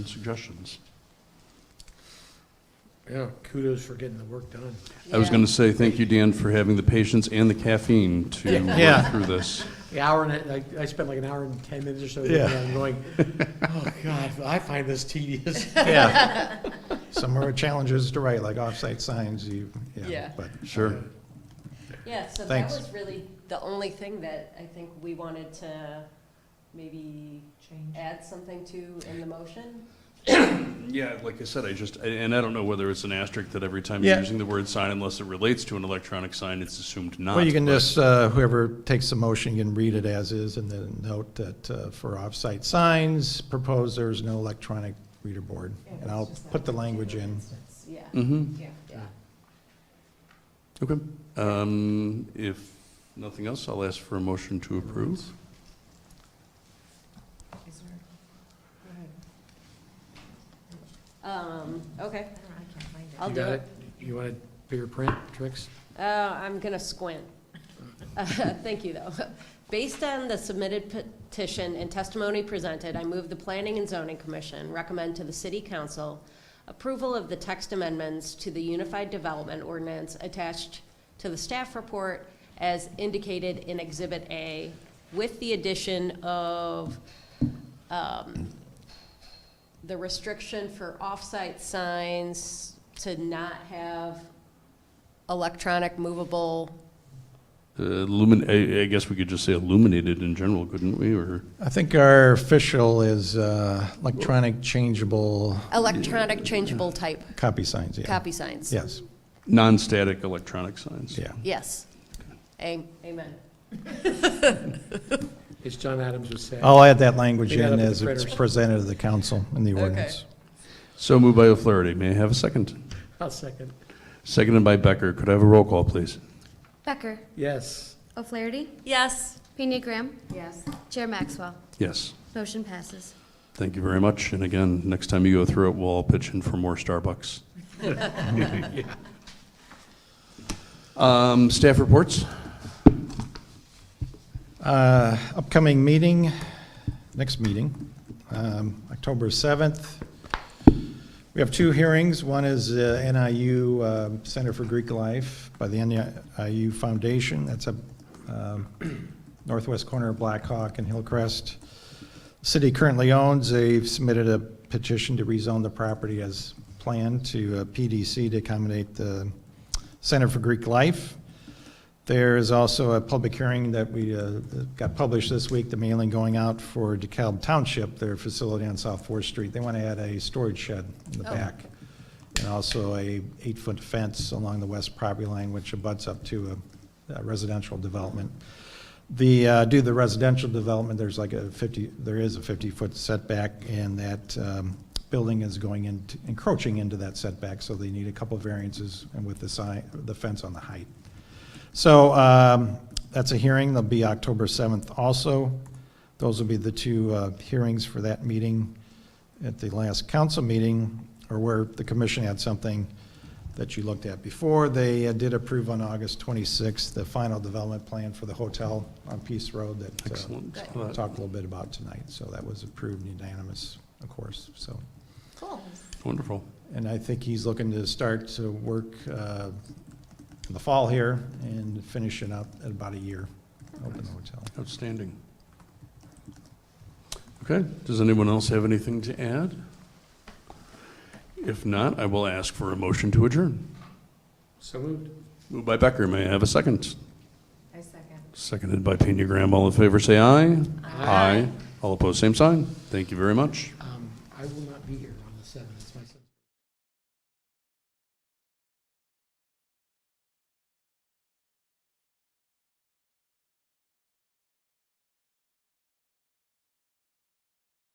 and suggestions. Yeah, kudos for getting the work done. I was going to say, thank you, Dan, for having the patience and the caffeine to Yeah. work through this. The hour and, I, I spent like an hour and ten minutes or so, there, Yeah. and I'm going, oh, God, I find this tedious. Yeah. Some are challenges to write, like off-site signs, you, yeah, Yeah. but. Sure. Yeah, so that Thanks. was really the only thing that I think we wanted to maybe Change. add something to in the motion. Yeah, like I said, I just, and I don't know whether it's an asterisk that every time you're Yeah. using the word sign, unless it relates to an electronic sign, it's assumed not. Well, you can just, uh, whoever takes the motion, you can read it as is, and then note that uh, for off-site signs, proposed there is no electronic reader board. And I'll put the language in. Yeah, Mm-hmm, Yeah. yeah. okay. Um, If nothing else, I'll ask for a motion to approve. Is there, go ahead. Um, okay, I don't know, I can't find it. I'll You do got it. You want a bigger print, tricks? Uh, I'm gonna squint. Uh, Thank you, though. Based on the submitted petition and testimony presented, I move the Planning and Zoning Commission recommend to the City Council approval of the text amendments to the Unified Development Ordinance attached to the staff report as indicated in Exhibit A, with the addition of um, the restriction for off-site signs to not have electronic movable, Uh, Lumin, I, I guess we could just say illuminated in general, couldn't we, or? I think our official is uh, electronic changeable electronic changeable type copy signs, yeah. copy signs. Yes, Non-static electronic signs. yeah. Yes. A- Amen. As John Adams was saying. I'll add that language Leave that up in to the as it's printers. presented to the council in the Okay. ordinance. So moved by O'Flaherty. May I have a second? I'll second. Seconded by Becker. Could I have a roll call, please? Becker, Yes. O'Flaherty, Yes. Pena Graham, Yes. Chair Maxwell. Yes. Motion passes. Thank you very much. And again, next time you go through it, we'll all pitch in for more Starbucks. Um, Staff reports? Uh, Upcoming meeting, next meeting, um, October 7th. We have two hearings. One is uh, NIU uh, Center for Greek Life by the NIU Foundation. That's a um, northwest corner of Black Hawk and Hillcrest. City currently owns, they've submitted a petition to rezone the property as planned to uh, PDC to accommodate the Center for Greek Life. There is also a public hearing that we uh, got published this week, the mailing going out for DeKalb Township, their facility on South Fourth Street. They want to add a storage shed in the Oh. back, and also a eight-foot fence along the west property line, which abuts up to a a residential development. The, uh, due to the residential development, there's like a 50, there is a 50-foot setback, and that um, building is going in, encroaching into that setback, so they need a couple variances, and with the sign, the fence on the height. So um, that's a hearing, that'll be October 7th also. Those will be the two uh, hearings for that meeting. At the last council meeting, or where the commission had something that you looked at before, they uh, did approve on August 26th the final development plan for the hotel on Peace Road that uh, Excellent. Good. we'll talk a little bit about tonight. So that was approved unanimous, of course, so. Cool. Wonderful. And I think he's looking to start to work uh, in the fall here and finish it up in about a year, open the hotel. Outstanding. Okay, does anyone else have anything to add? If not, I will ask for a motion to adjourn. So moved. Moved by Becker. May I have a second? I second. Seconded by Pena Graham. All in favor, say aye. Aye. All opposed, same sign. Thank you very much. Um, I will not be here on the seventh.